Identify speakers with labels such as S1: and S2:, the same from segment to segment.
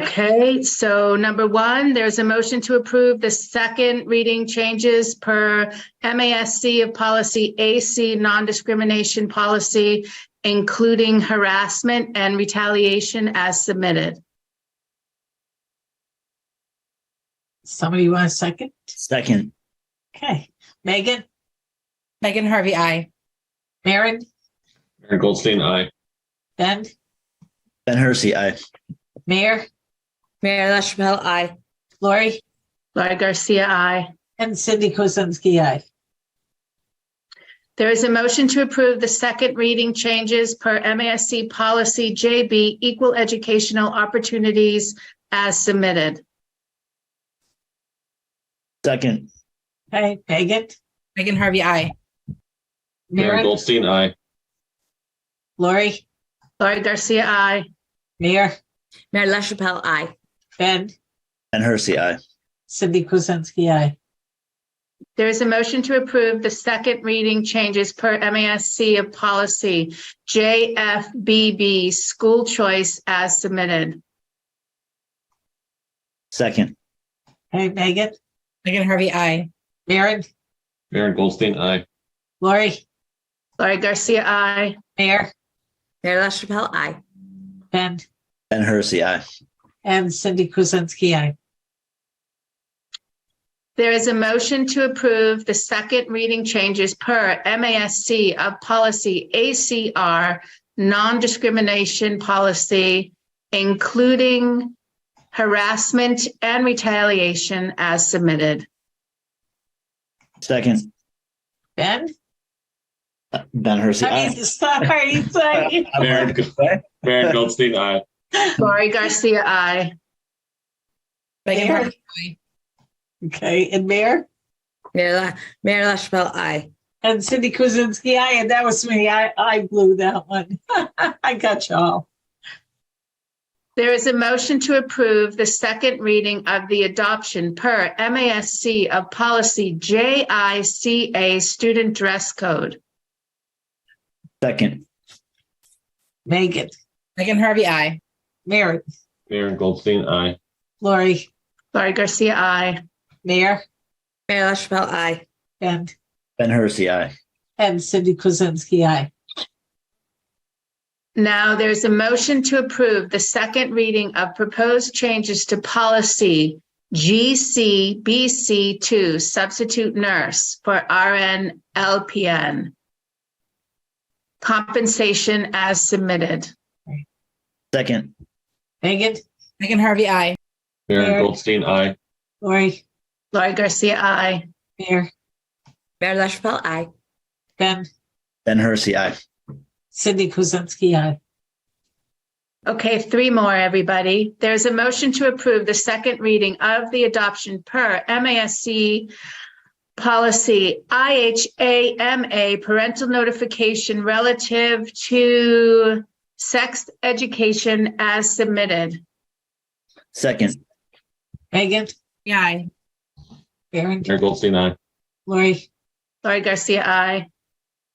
S1: Okay, so number one, there's a motion to approve the second reading changes per MASC of policy AC non-discrimination policy, including harassment and retaliation as submitted.
S2: Somebody want a second?
S3: Second,
S2: Okay. Megan,
S4: Megan Harvey, I.
S2: Maren,
S5: Aaron Goldstein, aye.
S2: Ben,
S3: Ben Hersey, aye.
S2: Mayor,
S4: Mayor LaChapelle, I.
S2: Lori,
S1: Laurie Garcia, aye.
S2: and Cindy Kuzensky, aye.
S1: There is a motion to approve the second reading changes per MASC policy JB equal educational opportunities as submitted.
S3: Second,
S2: Okay, Megan,
S4: Megan Harvey, I.
S5: Aaron
S2: Maren,
S5: Goldstein, aye.
S2: Lori,
S1: Laurie Garcia, aye.
S2: Mayor,
S4: Mayor LaChapelle, I.
S2: Ben,
S3: Ben Hersey, aye.
S2: Cindy Kuzensky, aye.
S1: There is a motion to approve the second reading changes per MASC of policy JFBB, school choice as submitted.
S3: Second,
S2: Okay, Megan,
S4: Megan Harvey, I.
S2: Maren,
S5: Aaron Goldstein, aye.
S2: Lori,
S1: Laurie Garcia, aye.
S2: Mayor,
S4: Mayor LaChapelle, I.
S2: Ben,
S3: Ben Hersey, aye.
S2: and Cindy Kuzensky, aye.
S1: There is a motion to approve the second reading changes per MASC of policy ACR, non-discrimination policy, including harassment and retaliation as submitted.
S3: Second,
S2: Ben,
S3: uh, Ben Hersey,
S2: I mean,
S3: aye.
S2: sorry, sorry.
S3: I'm
S5: Aaron
S3: like,
S5: Aaron Goldstein, aye.
S1: Laurie Garcia, aye.
S4: Megan
S2: Mayor?
S4: Harvey, I.
S2: Okay, and Mayor,
S4: Mayor La, Mayor LaChapelle, I.
S2: and Cindy Kuzensky, aye, and that was me. I, I blew that one. I got y'all.
S1: There is a motion to approve the second reading of the adoption per MASC of policy JICA student dress code.
S3: Second,
S2: Megan,
S4: Megan Harvey, I.
S2: Maren,
S5: Aaron Goldstein, aye.
S2: Lori,
S1: Laurie Garcia, I.
S2: Mayor,
S4: Mayor LaChapelle, I.
S2: Ben,
S3: Ben Hersey, aye.
S2: and Cindy Kuzensky, aye.
S1: Now there's a motion to approve the second reading of proposed changes to policy GCBC2 substitute nurse for RN LPN. Compensation as submitted.
S3: Second,
S2: Megan,
S4: Megan Harvey, I.
S5: Aaron
S2: Aaron-
S5: Goldstein, aye.
S2: Lori,
S1: Laurie Garcia, I.
S2: Mayor,
S4: Mayor LaChapelle, I.
S2: Ben,
S3: Ben Hersey, aye.
S2: Cindy Kuzensky, aye.
S1: Okay, three more, everybody. There's a motion to approve the second reading of the adoption per MASC policy IHAMA parental notification relative to sex education as submitted.
S3: Second,
S2: Megan,
S4: Yeah, I.
S2: Maren,
S5: Aaron Goldstein, aye.
S2: Lori,
S1: Laurie Garcia, I.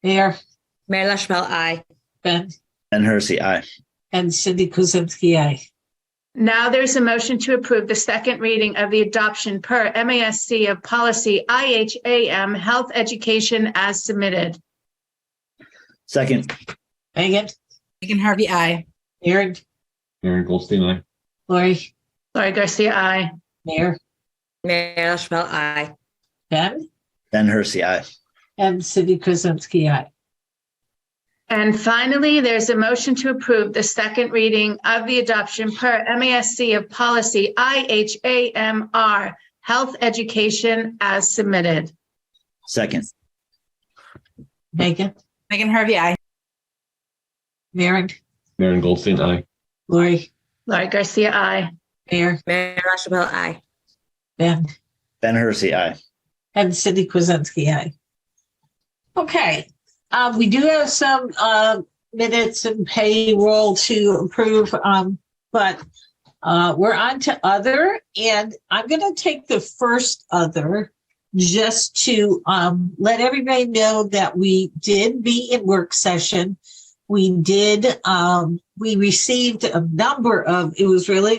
S2: Mayor,
S4: Mayor LaChapelle, I.
S2: Ben,
S3: Ben Hersey, aye.
S2: and Cindy Kuzensky, aye.
S1: Now there's a motion to approve the second reading of the adoption per MASC of policy IHAM health education as submitted.
S3: Second,
S2: Megan,
S4: Megan Harvey, I.
S2: Maren,
S5: Aaron Goldstein, aye.
S2: Lori,
S1: Laurie Garcia, I.
S2: Mayor,
S4: Mayor LaChapelle, I.
S2: Ben,
S3: Ben Hersey, aye.
S2: and Cindy Kuzensky, aye.
S1: And finally, there's a motion to approve the second reading of the adoption per MASC of policy IHAMR, health education as submitted.
S3: Second,
S2: Megan,
S4: Megan Harvey, I.
S2: Maren,
S5: Aaron Goldstein, aye.
S2: Lori,
S1: Laurie Garcia, I.
S2: Mayor,
S4: Mayor LaChapelle, I.
S2: Ben,
S3: Ben Hersey, aye.
S2: and Cindy Kuzensky, aye. Okay, uh, we do have some, uh, minutes and payroll to approve, um, but, uh, we're on to other, and I'm gonna take the first other just to, um, let everybody know that we did be in work session. We did, um, we received a number of, it was really